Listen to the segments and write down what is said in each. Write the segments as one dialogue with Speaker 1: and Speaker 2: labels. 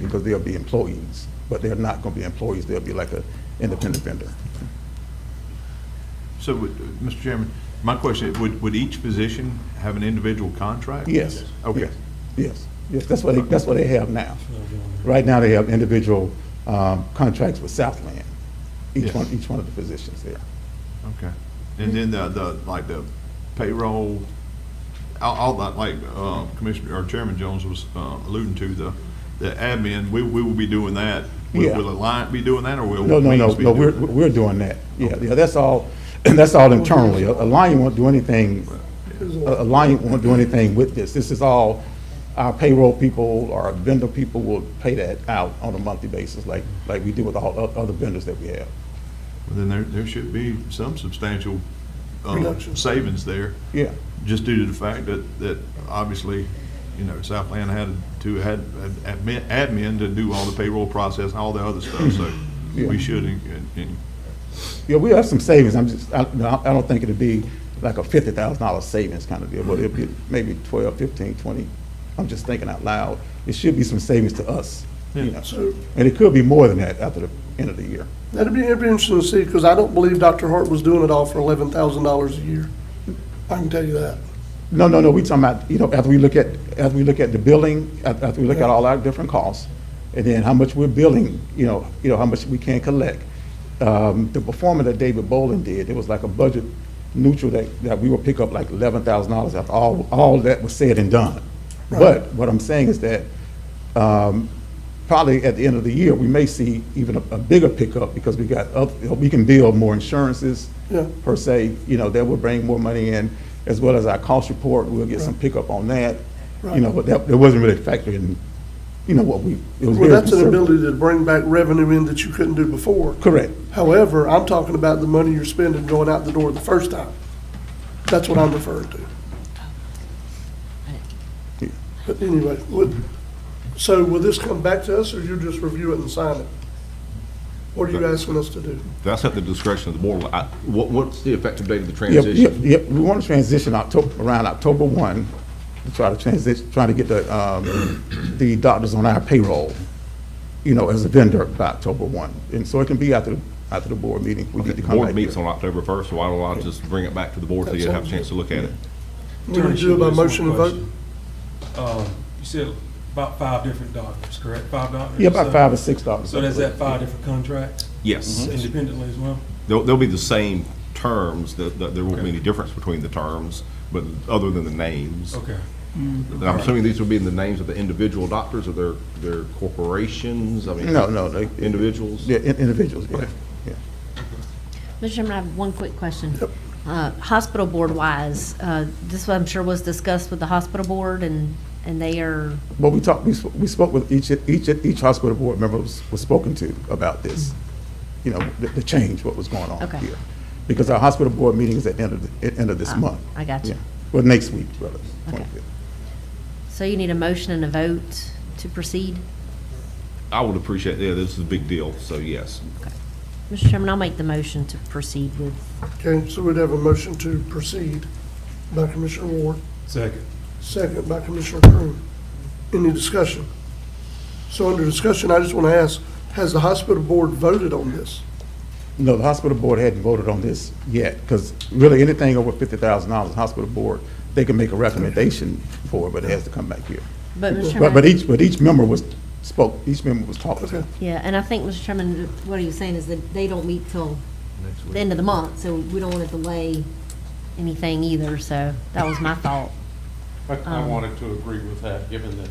Speaker 1: because they'll be employees, but they're not going to be employees, they'll be like an independent vendor.
Speaker 2: So, would- Mr. Chairman, my question, is, would, would each position have an individual contract?
Speaker 1: Yes.
Speaker 2: Okay.
Speaker 1: yes, Yes, yes, that's what, they- that's what they have now. Right now, they have individual um, contracts with Southland, each
Speaker 2: Yes.
Speaker 1: one, each one of the positions there.
Speaker 2: Okay. And then the, the, like the payroll, all, all that, like, uh, Commissioner, or Chairman Jones was, uh, alluding to, the, the admin, we, we will be doing that. Will,
Speaker 1: Yeah.
Speaker 2: will Alliant be doing that, or will?
Speaker 1: No, no, no,
Speaker 2: Wings be
Speaker 1: no,
Speaker 2: doing
Speaker 1: we're,
Speaker 2: that?
Speaker 1: we're doing that. Yeah, yeah, that's all, that's all internally. A Lion won't do anything, a Lion won't do anything with this. This is all, our payroll people, our vendor people will pay that out on a monthly basis, like, like we do with all o- other vendors that we have.
Speaker 2: Then there, there should be some substantial, um,
Speaker 3: Reduction.
Speaker 2: savings there.
Speaker 1: Yeah.
Speaker 2: just due to the fact that, that obviously, you know, Southland had to, had had admin, admin to do all the payroll process, and all the other stuff, so
Speaker 1: Yeah.
Speaker 2: we should, in- in-
Speaker 1: Yeah, we have some savings, I'm just, I, no, I don't think it'd be like a fifty thousand dollar savings kind of deal, but it'd be maybe twelve, fifteen, twenty. I'm just thinking out loud, it should be some savings to us, you know,
Speaker 3: So-
Speaker 1: and it could be more than that after the end of the year.
Speaker 3: That'd be, it'd be interesting to see, because I don't believe Dr. Hart was doing it all for eleven thousand dollars a year. I can tell you that.
Speaker 1: No, no, no, we talking about, you know, after we look at, after we look at the billing, af- after we look at all our different costs, and then how much we're billing, you know, you know, how much we can collect. Um, the performance that David Bolin did, it was like a budget neutral that, that we will pick up like eleven thousand dollars after all, all that was said and done. But what I'm saying is that, um, probably at the end of the year, we may see even a, a bigger pickup because we got, oth- you know, we can bill more insurances
Speaker 3: Yeah.
Speaker 1: per se, you know, that will bring more money in, as well as our cost report, we'll get some pickup on that. You know, but that, that wasn't really factored in, you know, what we, it was
Speaker 3: Well,
Speaker 1: very
Speaker 3: that's an
Speaker 1: conservative.
Speaker 3: ability to bring back revenue in that you couldn't do before.
Speaker 1: Correct,
Speaker 3: However, I'm talking about the money you're spending going out the door the first time. That's what I'm referring to. But anyway, would, so will this come back to us, or you just review it and sign it? What are you asking us to do?
Speaker 4: That's at the discretion of the board. I- What, what's the effective date of the
Speaker 1: yep, yep,
Speaker 4: transition?
Speaker 1: yep, we want to transition October, around October one, to try to transition, trying to get the, um, the doctors on our payroll, you know, as a vendor by October one, and so it can be after, after the board meeting, we need
Speaker 4: The
Speaker 1: to come back
Speaker 4: board
Speaker 1: here.
Speaker 4: meets on October 1st, so why don't I just bring it back to the board so you have a chance to look at it?
Speaker 3: We would do it by motion and vote?
Speaker 5: Um, you said about five different doctors, correct? Five doctors?
Speaker 1: Yeah, about
Speaker 5: So-
Speaker 1: five or six doctors.
Speaker 5: So that's that five different contracts Mm-hmm.
Speaker 4: Yes.
Speaker 5: independently as well?
Speaker 4: They'll, they'll be the same terms, that, that there won't be any difference between the terms, but other than the names.
Speaker 5: Okay.
Speaker 4: And I'm assuming these will be in the names of the individual doctors or their, their corporations, I mean.
Speaker 1: No, no, no.
Speaker 4: Individuals?
Speaker 1: Yeah, in- individuals, yeah, yeah.
Speaker 6: Mr. Chairman, I have one quick question. Uh, Hospital board-wise, uh, this I'm sure was discussed with the hospital board, and, and they are,
Speaker 1: But we talked, we sp- we spoke with each, each, each hospital board member was, was spoken to about this, you know, the, the change, what was going on
Speaker 6: Okay.
Speaker 1: here. Because our hospital board meeting is at the end of, the at end of this
Speaker 6: Ah,
Speaker 1: month.
Speaker 6: I got you.
Speaker 1: Yeah. Well, next week, rather,
Speaker 6: Okay.
Speaker 1: 25th.
Speaker 6: so you need a motion and a vote to proceed?
Speaker 4: I would appreciate, yeah, this is a big deal, so yes.
Speaker 6: Mr. Chairman, I'll make the motion to proceed with,
Speaker 3: Okay, so we'd have a motion to proceed by Commissioner Ward,
Speaker 5: Second.
Speaker 3: second by Commissioner Crew. Any discussion? So under discussion, I just want to ask, has the hospital board voted on this?
Speaker 1: No, the hospital board hadn't voted on this yet, because really anything over fifty thousand dollars, the hospital board, they can make a recommendation for, it, but it has to come back here.
Speaker 6: but Mr.
Speaker 1: But, but
Speaker 6: Chairman,
Speaker 1: each, but each member was, spoke, each member was talked to.
Speaker 3: Okay.
Speaker 6: yeah, and I think, Mr. Chairman, what are you saying is that they don't meet till the end of the month, so we don't want to delay anything either, so that was my thought.
Speaker 7: But I wanted to agree with that, given that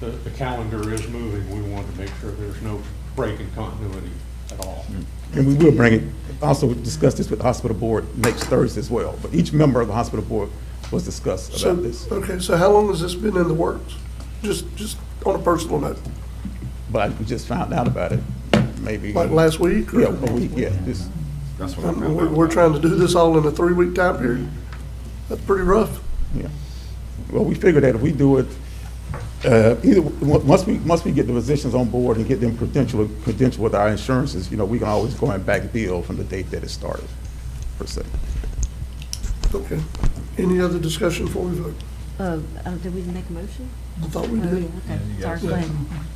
Speaker 7: the, the calendar is moving, we wanted to make sure there's no break in continuity at all.
Speaker 4: Hmm.
Speaker 1: And we will bring it, also discuss this with the hospital board next Thursday as well. But each member of the hospital board was discussed
Speaker 3: So,
Speaker 1: about this.
Speaker 3: okay, so how long has this been in the works? Just, just on a personal note,
Speaker 1: But we just found out about it, maybe.
Speaker 3: like last week? or-
Speaker 1: Yeah, a week, yeah, this,
Speaker 4: That's what I
Speaker 3: Um,
Speaker 4: found
Speaker 3: We're
Speaker 4: out.
Speaker 3: we're trying to do this all in a three-week time period? That's pretty rough.
Speaker 1: yeah. Well, we figured that if we do it, uh, either, on- once we, once we get the physicians on board and get them credentialed, credentialed with our insurances, you know, we can always go and back bill from the date that it started, per se.
Speaker 3: Okay. Any other discussion before we vote?
Speaker 6: Uh, uh, did we make a motion?
Speaker 3: I thought we
Speaker 6: Oh, yeah,
Speaker 3: did.
Speaker 6: okay, sorry, go ahead.